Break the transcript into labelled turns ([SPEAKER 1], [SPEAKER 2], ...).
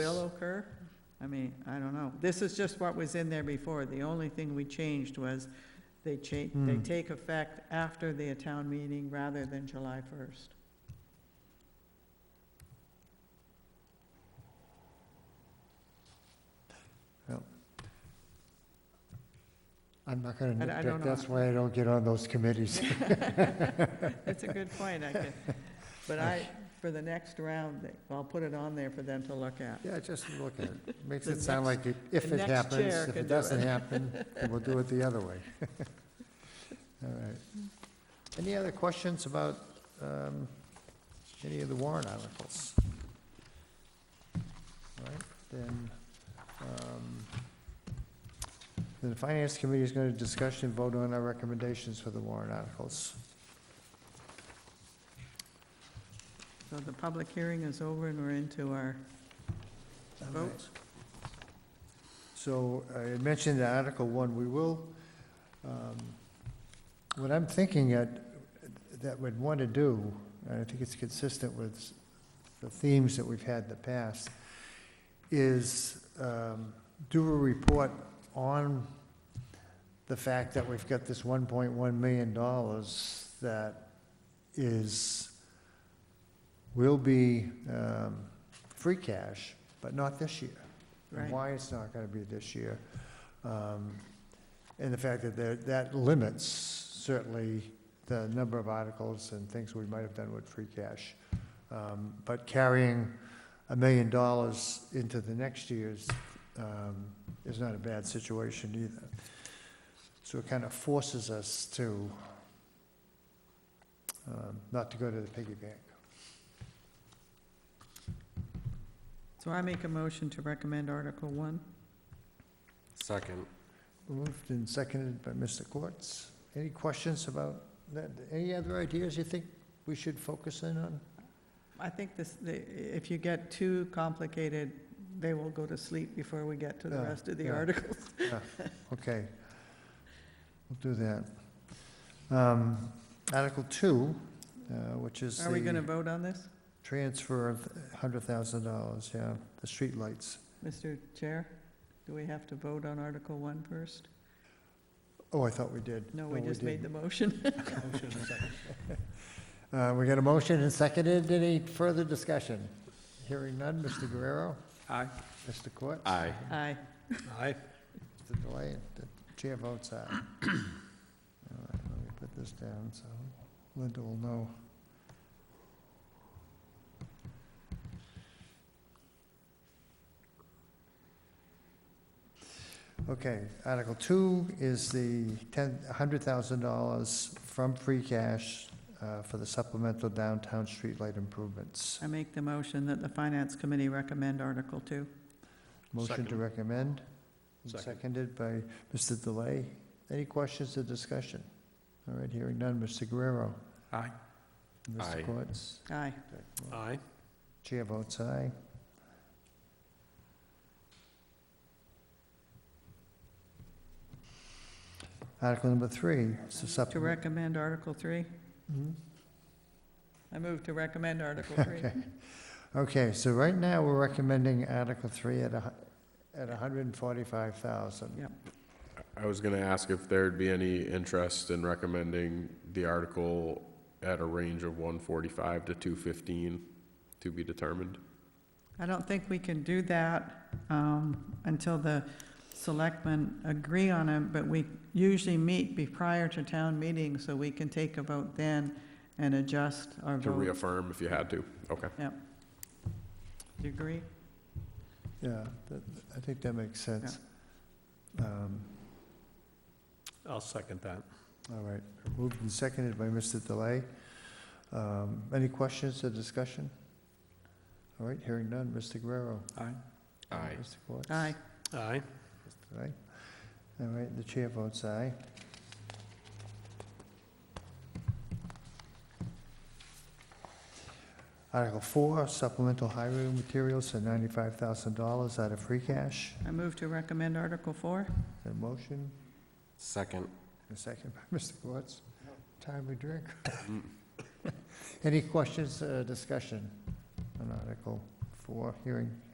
[SPEAKER 1] still occur? I mean, I don't know. This is just what was in there before. The only thing we changed was they cha, they
[SPEAKER 2] Hmm.
[SPEAKER 1] take effect after the town meeting rather than July first.
[SPEAKER 2] I'm not gonna
[SPEAKER 1] I- I don't
[SPEAKER 2] nitpick,
[SPEAKER 1] know.
[SPEAKER 2] that's why I don't get on those committees.
[SPEAKER 1] That's a good point, I could, but I, for the next round, I'll put it on there for them to look at.
[SPEAKER 2] Yeah, just look at it, makes
[SPEAKER 1] The
[SPEAKER 2] it sound like it- if
[SPEAKER 1] the
[SPEAKER 2] it
[SPEAKER 1] next
[SPEAKER 2] happens,
[SPEAKER 1] chair
[SPEAKER 2] if
[SPEAKER 1] can
[SPEAKER 2] it
[SPEAKER 1] do
[SPEAKER 2] doesn't
[SPEAKER 1] it.
[SPEAKER 2] happen, then we'll do it the other way. All right. Any other questions about um, any of the warrant articles? All right, then, um, then the Finance Committee is going to discuss and vote on our recommendations for the warrant articles.
[SPEAKER 1] So the public hearing is over and we're into our
[SPEAKER 2] All right.
[SPEAKER 1] vote.
[SPEAKER 2] So I mentioned in Article One, we will, um, what I'm thinking that, that we'd want to do, and I think it's consistent with the themes that we've had in the past, is um, do a report on the fact that we've got this one point one million dollars that is, will be um, free cash, but not this year
[SPEAKER 1] Right.
[SPEAKER 2] and why it's not gonna be this year. Um, And the fact that there, that limits certainly the number of articles and things we might have done with free cash. Um, But carrying a million dollars into the next year's um, is not a bad situation either. So it kind of forces us to, um, not to go to the piggy bank.
[SPEAKER 1] So I make a motion to recommend Article One.
[SPEAKER 3] Second.
[SPEAKER 2] Moved and seconded by Mr. Quartz. Any questions about that? Any other ideas you think we should focus in on?
[SPEAKER 1] I think this, the- if you get too complicated, they will go to sleep before we get to the
[SPEAKER 2] Yeah,
[SPEAKER 1] rest of the
[SPEAKER 2] yeah.
[SPEAKER 1] articles.
[SPEAKER 2] Okay. We'll do that. Um, Article two, uh, which is
[SPEAKER 1] Are we gonna
[SPEAKER 2] the
[SPEAKER 1] vote on this,
[SPEAKER 2] transfer of hundred thousand dollars, yeah, the streetlights.
[SPEAKER 1] Mr. Chair? Do we have to vote on Article One first?
[SPEAKER 2] Oh, I thought we did.
[SPEAKER 1] No, we just made the motion.
[SPEAKER 2] the. Uh, we got a motion and seconded. Any further discussion? Hearing none. Mr. Guerrero?
[SPEAKER 3] Aye.
[SPEAKER 2] Mr. Quartz?
[SPEAKER 3] Aye.
[SPEAKER 1] Aye.
[SPEAKER 3] Aye.
[SPEAKER 2] The delay, the chair votes aye. All right, let me put this down so Linda will know. Okay, Article Two is the ten, hundred thousand dollars from free cash uh, for the supplemental downtown streetlight improvements.
[SPEAKER 1] I make the motion that the Finance Committee recommend Article Two.
[SPEAKER 2] Motion to
[SPEAKER 3] Second.
[SPEAKER 2] recommend,
[SPEAKER 3] Second.
[SPEAKER 2] seconded by Mr. Delay. Any questions or discussion? All right, hearing none. Mr. Guerrero?
[SPEAKER 3] Aye. Aye.
[SPEAKER 2] Mr. Quartz?
[SPEAKER 1] Aye.
[SPEAKER 3] Aye.
[SPEAKER 2] Chair votes aye. Article number three, it's a
[SPEAKER 1] To
[SPEAKER 2] supplement.
[SPEAKER 1] recommend Article Three?
[SPEAKER 2] Mhm.
[SPEAKER 1] I move to recommend Article Three.
[SPEAKER 2] Okay. Okay, so right now, we're recommending Article Three at a, hu- at a hundred and forty-five thousand.
[SPEAKER 4] I was gonna ask if there'd be any interest in recommending the article at a range of one forty-five to two fifteen to be determined.
[SPEAKER 1] I don't think we can do that um, until the selectmen agree on it, but we usually meet be prior to town meeting, so we can take a vote then and adjust our
[SPEAKER 4] To
[SPEAKER 1] vote.
[SPEAKER 4] reaffirm if you had to, okay.
[SPEAKER 1] Do you agree?
[SPEAKER 2] Yeah, that- I think that makes sense. Um,
[SPEAKER 3] I'll second that.
[SPEAKER 2] All right, moved and seconded by Mr. Delay. Um, Any questions or discussion? All right, hearing none, Mr. Guerrero.
[SPEAKER 3] Aye.
[SPEAKER 4] Aye.
[SPEAKER 2] Mr. Quartz.
[SPEAKER 1] Aye.
[SPEAKER 3] Aye.
[SPEAKER 2] Mr. Delay. All right, the chair votes aye. Article four, supplemental highway materials for ninety-five thousand dollars out of free cash.
[SPEAKER 1] I move to recommend Article Four.
[SPEAKER 2] A motion,
[SPEAKER 3] Second.
[SPEAKER 2] A second by Mr. Quartz. Time we drink. Any questions, uh, discussion on Article 4, hearing